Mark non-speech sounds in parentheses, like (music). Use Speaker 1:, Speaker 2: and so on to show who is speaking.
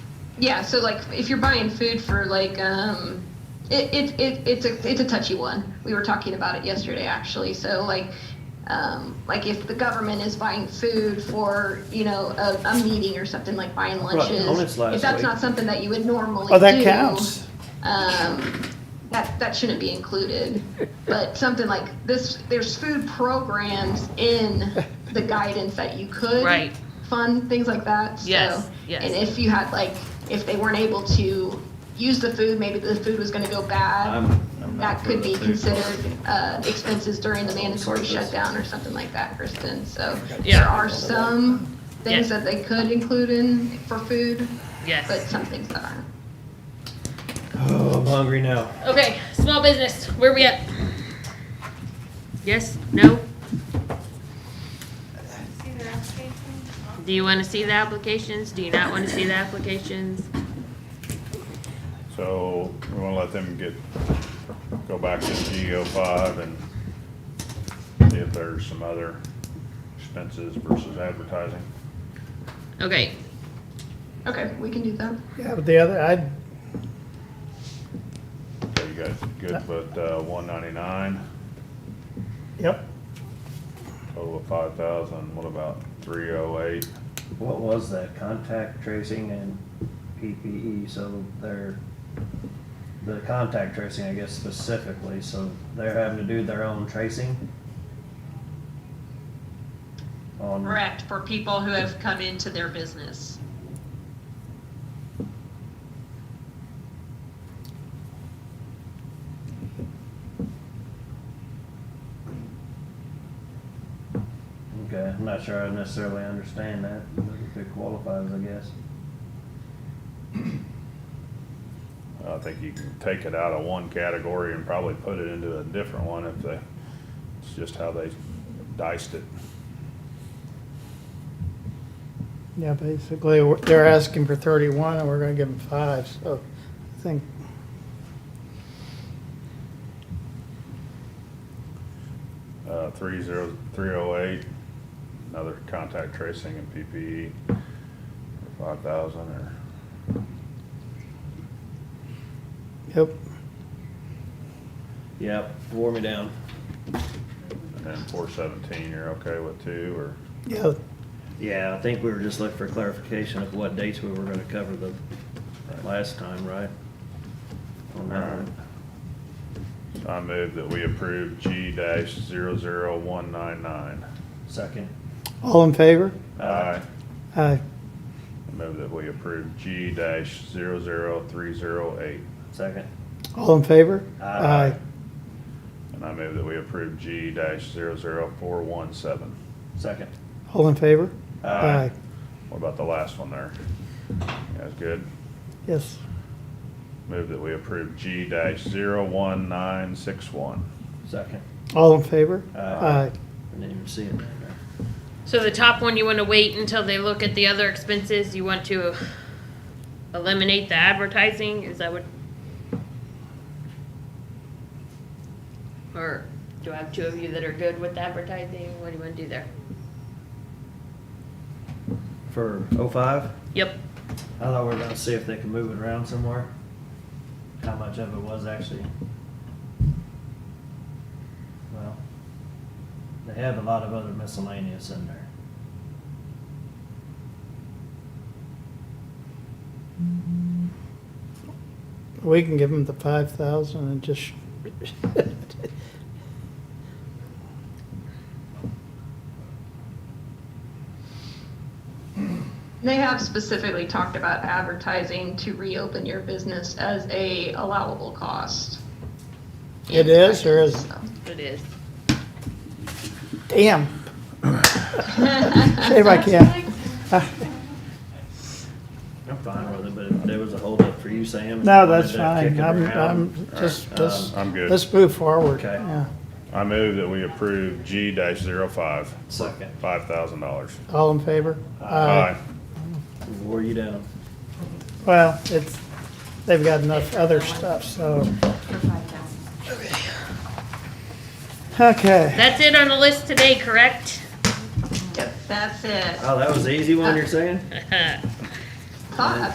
Speaker 1: yeah, so like if you're buying food for like um it, it, it it's a it's a touchy one. We were talking about it yesterday actually. So like um, like if the government is buying food for you know a, a meeting or something like buying lunches,
Speaker 2: Honest last
Speaker 1: if that's
Speaker 2: week.
Speaker 1: not something that you would normally
Speaker 3: Oh, that
Speaker 1: do,
Speaker 3: counts.
Speaker 1: um, that that shouldn't be included. But something like this, there's food programs in the guidance that you could
Speaker 4: Right.
Speaker 1: fund things like that. So,
Speaker 4: Yes, yes.
Speaker 1: And if you had like if they weren't able to use the food, maybe the food was going to go bad.
Speaker 2: I'm- I'm not
Speaker 1: that
Speaker 2: for
Speaker 1: could
Speaker 2: the
Speaker 1: be
Speaker 2: food.
Speaker 1: considered uh, expenses during the mandatory
Speaker 2: Service.
Speaker 1: shutdown or something like that, Kristen. So
Speaker 4: Yeah.
Speaker 1: there are some things
Speaker 4: Yeah.
Speaker 1: that they could include in for food, but
Speaker 4: Yes.
Speaker 1: some things that aren't.
Speaker 2: Oh, I'm hungry now.
Speaker 4: Okay, small business, where we at? Yes, no? Do you wanna see the applications? Do you not wanna see the applications?
Speaker 5: So we wanna let them get, go back to the GO five and see if there's some other expenses versus advertising.
Speaker 4: Okay,
Speaker 1: Okay, we can do that.
Speaker 3: Yeah, but the other, I,
Speaker 5: So you guys good with, uh, one ninety-nine,
Speaker 3: yep,
Speaker 5: total of five thousand, what about three oh eight?
Speaker 2: What was that? Contact tracing and PPE, E? so they're, the contact tracing, I guess specifically, so they're having to do their own tracing? On,
Speaker 6: Correct, for people who have come into their business.
Speaker 2: okay, I'm not sure I necessarily understand that, but if it qualifies, I guess.
Speaker 5: I think you can take it out of one category and probably put it into a different one if they, it's just how they diced it.
Speaker 3: yeah, basically, we're- they're asking for thirty-one and we're gonna give them five, so I think,
Speaker 5: uh, three zero, three oh eight, another contact tracing and PPE, E. five thousand or,
Speaker 3: yep,
Speaker 2: Yep, wore me down.
Speaker 5: and then four seventeen, you're okay with two, or,
Speaker 3: yeah,
Speaker 2: Yeah, I think we were just looking for clarification of what dates we were gonna cover the last time, right? On that one.
Speaker 5: I move that we approve G dash zero zero one nine nine.
Speaker 2: Second.
Speaker 3: all in favor?
Speaker 5: I
Speaker 3: Aye,
Speaker 5: move that we approve G dash zero zero three zero eight,
Speaker 2: Second.
Speaker 3: all in favor?
Speaker 2: Aye.
Speaker 5: and I move that we approve G dash zero zero four one seven.
Speaker 2: Second.
Speaker 3: All in favor?
Speaker 5: Aye. What about the last one there? That's good.
Speaker 3: Yes,
Speaker 5: Move that we approve G dash zero one nine six one.
Speaker 2: Second.
Speaker 3: all in favor?
Speaker 2: Aye. I didn't even see it down there.
Speaker 4: so the top one, you wanna wait until they look at the other expenses, you want to eliminate the advertising, is that what? Or do I have two of you that are good with advertising, what do you wanna do there?
Speaker 2: For oh five,
Speaker 4: Yep,
Speaker 2: I thought we were gonna see if they can move it around somewhere. How much of it was actually. Well, they have a lot of other miscellaneous in there.
Speaker 3: We can give them the five thousand and just, (laughs)
Speaker 1: They have specifically talked about advertising to reopen your business as a allowable cost.
Speaker 3: It is or isn't?
Speaker 1: So,
Speaker 4: it is.
Speaker 3: damn. If I can.
Speaker 2: I'm fine with it, but if there was a holdup for you, Sam.
Speaker 3: No, that's
Speaker 2: you wanted
Speaker 3: fine,
Speaker 2: to
Speaker 3: I'm,
Speaker 2: kick it around,
Speaker 3: I'm, just,
Speaker 2: um,
Speaker 3: let's,
Speaker 5: I'm good.
Speaker 3: let's move forward,
Speaker 2: Okay.
Speaker 3: yeah,
Speaker 5: I move that we approve G dash zero five,
Speaker 2: Second.
Speaker 5: five thousand dollars.
Speaker 3: all in favor?
Speaker 2: Wore you down.
Speaker 3: Well, it's, they've got enough other stuff, so. Okay,
Speaker 4: That's it on the list today, correct?
Speaker 6: Yep, that's it.
Speaker 2: Oh, that was the easy one you're saying?
Speaker 1: Thought,